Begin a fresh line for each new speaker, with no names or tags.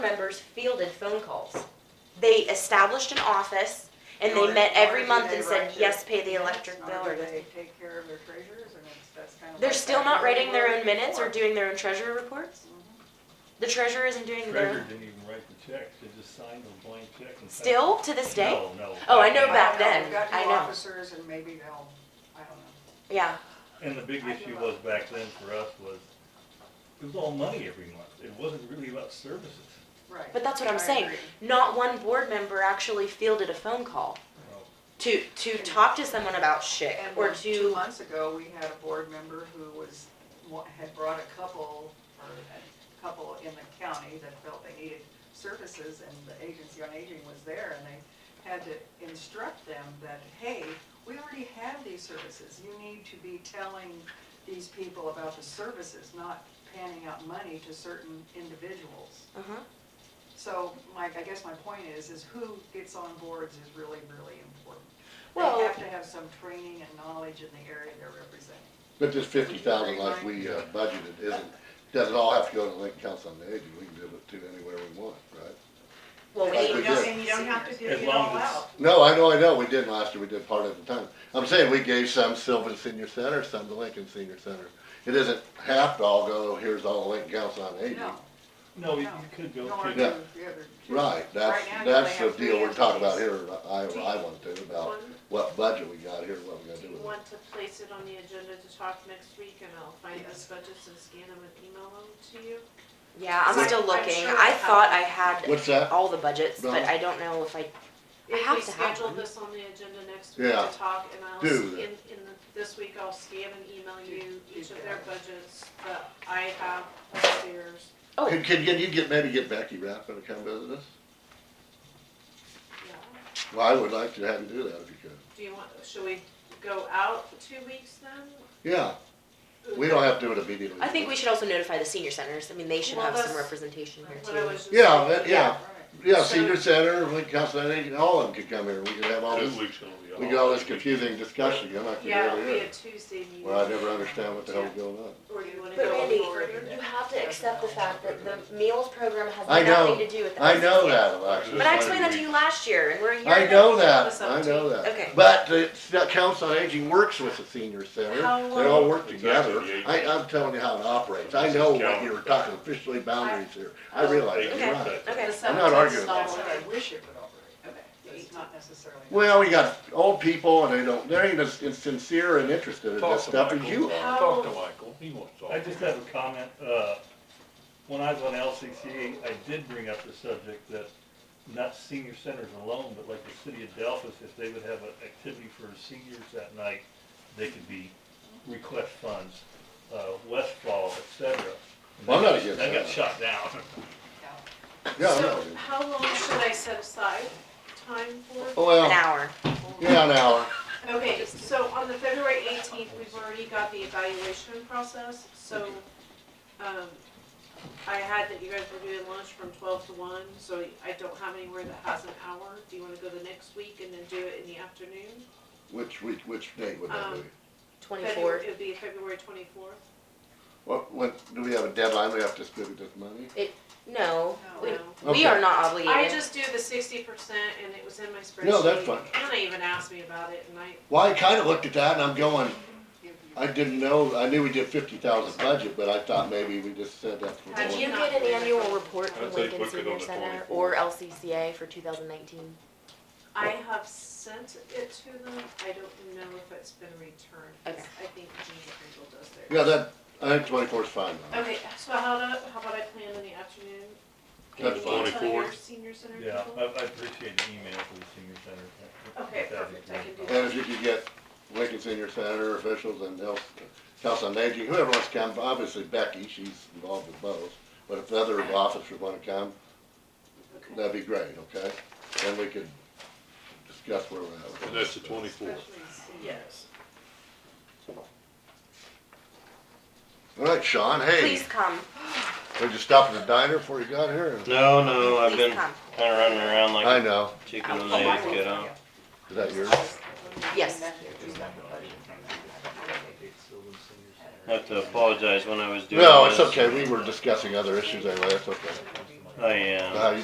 members fielded phone calls. They established an office and
In
they
order-
met
in order
every
to
month
do
and
their
said,
electric-
yes, pay the
Yeah,
electric
in
bill
order
or this.
They take care of their treasures and it's, that's kind of.
They're
like
still
that
not
we
writing their
were
own minutes or
before.
doing their own treasurer reports? The treasurer isn't doing
Treasurer
their,
didn't even write the checks, they just signed a blank check and. sent it.
still to this day?
No, no.
Oh, I know
I
back
back
don't know,
then.
then,
We've got
I
new
know.
officers and maybe they'll, I don't know.
Yeah,
And the big issue was back then for us was, it was all money every month, it wasn't really about services.
Right.
but that's what I'm
I
saying.
agree.
Not one board member actually fielded a phone call
you know.
to, to talk to someone about shit
And
or
when- two
to,
months ago, we had a board member who was, wa- had brought a couple, or a couple in the county that felt they needed services, and the agency on aging was there, and they had to instruct them that, hey, we already have these services, you need to be telling these people about the services, not panning out money to certain individuals.
uh-huh.
So, Mike, I guess my point is, is who gets on boards is really, really important. They
Well-
have to have some training and knowledge in the area they're representing.
But this fifty thousand like we uh, budgeted isn't, doesn't all have to go to Lincoln Council on the Aging, we can give it to anywhere we want, right?
Well, we
Like
need
we
And you don't,
did.
and you don't have to do
As
it
long
all
as it's-
out.
No, I know, I know, we did last year, we did part at a time. I'm saying we gave some Sylvan Senior Center, some to Lincoln Senior Center. It isn't half to all go, here's all Lincoln Council on Aging.
No,
No, oh, you
No.
you could
no,
go
or
to.
the other two.
Right, that's,
Right now, you
that's
only
the
have
deal
three
we're talking about here,
entities.
I,
Do you-
I want to, about
One.
what budget we got here, what we're gonna
Do you
do with it.
want to place it on the agenda to talk next week and I'll find those budgets and scan them and email them to you?
Yeah, I'm
Like,
still
I'm
looking.
sure
I
I
thought I
What's
had
that?
all the budgets, but
No.
I don't know if I, I
If
have
we
to have
schedule
them.
this on the agenda next week
Yeah.
to talk and I'll, s-
Do
in,
that.
in, the- this week I'll scan and email
Do-
you
do
each of
that.
their budgets that I have upstairs.
Oh.
Can, can can you get, maybe get Becky Rappin to come visit us?
Yeah.
Well, I would like to have you do that if you could.
Do you want, should we go out two weeks then?
Yeah, we don't have to do it immediately.
I think we should also notify the senior centers. I mean, they should
Well,
have some
that's
representation here
What I
too.
was just
Yeah, that,
thinking.
yeah,
Right.
yeah,
So-
senior center, Lincoln Council, I think all of them could come here, we could have all this,
Two weeks it'll be
we get all this confusing discussion, I'm not gonna
Yeah,
be
it'll
able
be
to
a
hear.
Tuesday meeting.
Well, I never understand what the hell's going on.
Or you wanna
But
go
Randy,
forward?
you have to accept the fact that the meals program has
I know.
nothing to do with the
I know
SSA.
that, Alexis.
But I explained that to you last year and we're a year.
I
ago.
know that,
That's up
I
to
know
you.
that.
Okay.
But the, the council on aging works with the senior center,
How
they all
long-
work
Exactly,
together.
the
I,
aging.
I'm telling you how it operates, I know what you were talking, officially boundaries here, I realize,
Aging
you're right.
sector.
Okay.
The
I'm not arguing
seventeenth,
about
That's
that's
what
right.
I wish it would operate,
Okay.
but it's not necessarily.
Well, we got old people and they don't, they ain't as sincere and interested in this stuff as you are.
Talk to Michael, he wants to.
I just have a comment, uh, when I was on LCCA, I did bring up the subject that not senior centers alone, but like the city of Delphus, if they would have an activity for seniors that night, they could be request funds, uh, Westfall, et cetera.
Well, I'm not against
That got
that.
shot down.
Yeah.
Yeah, I
So
know.
how long should I set aside time for?
Oh,
An
Well,
hour.
yeah, an hour.
Okay, so on the February eighteenth, we've already got the evaluation process, so, um, I had that you guys were doing lunch from twelve to one, so I don't have anywhere that has an hour. Do you wanna go the next week and then do it in the afternoon?
Which week, which day would that be?
Um, February-
Twenty-four.
It'd be February twenty-fourth.
What, what, do we have a deadline? We have to distribute this money?
No,
No.
we,
No.
we
Okay.
are not
I
obligated.
just do the sixty percent and it was in my spreadsheet.
No, that's fine.
Anna even asked me about it and I,
Well, I kinda looked at that and I'm going,
Give you-
I didn't know, I knew we did fifty thousand budget, but I thought maybe we just said that for
How'd
Do
one.
you get an annual report from
I'd say
Lincoln
book it on
Senior
the
Center
24.
or LCCA for two thousand nineteen?
I have sent it to them, I don't know if it's been returned, 'cause
Okay.
I think Gina Kringle does theirs.
Yeah, that, I think twenty-four is fine. though.
Okay, so how about, how about I plan in the afternoon?
That's
Maybe I'll
fine.
tell your
24th.
Senior center
Yeah, I,
people?
I appreciate the email for the senior center.
Okay,
That'd be
perfect, I can do
great.
And if you could get Lincoln Senior Senator officials and else, House on Aging, whoever wants to come, obviously Becky, she's involved with both. But if the other officers wanna come,
Okay.
that'd be great, okay? Then we could discuss where we're at.
And
with
that's
this.
the twenty-fourth.
Especially seniors.
Yes.
All right, Sean, hey,
Please come,
did you stop at the diner before you got here?
No, no, I've
please
been
come.
kind of running around like
I know,
a chicken when
Oh,
they
I
get out.
is that yours?
Yes.
And then you've got the budget from that.
I have to apologize when I was doing
No,
this.
it's okay, we were discussing other issues anyway, that's okay.
I am.
Oh, How you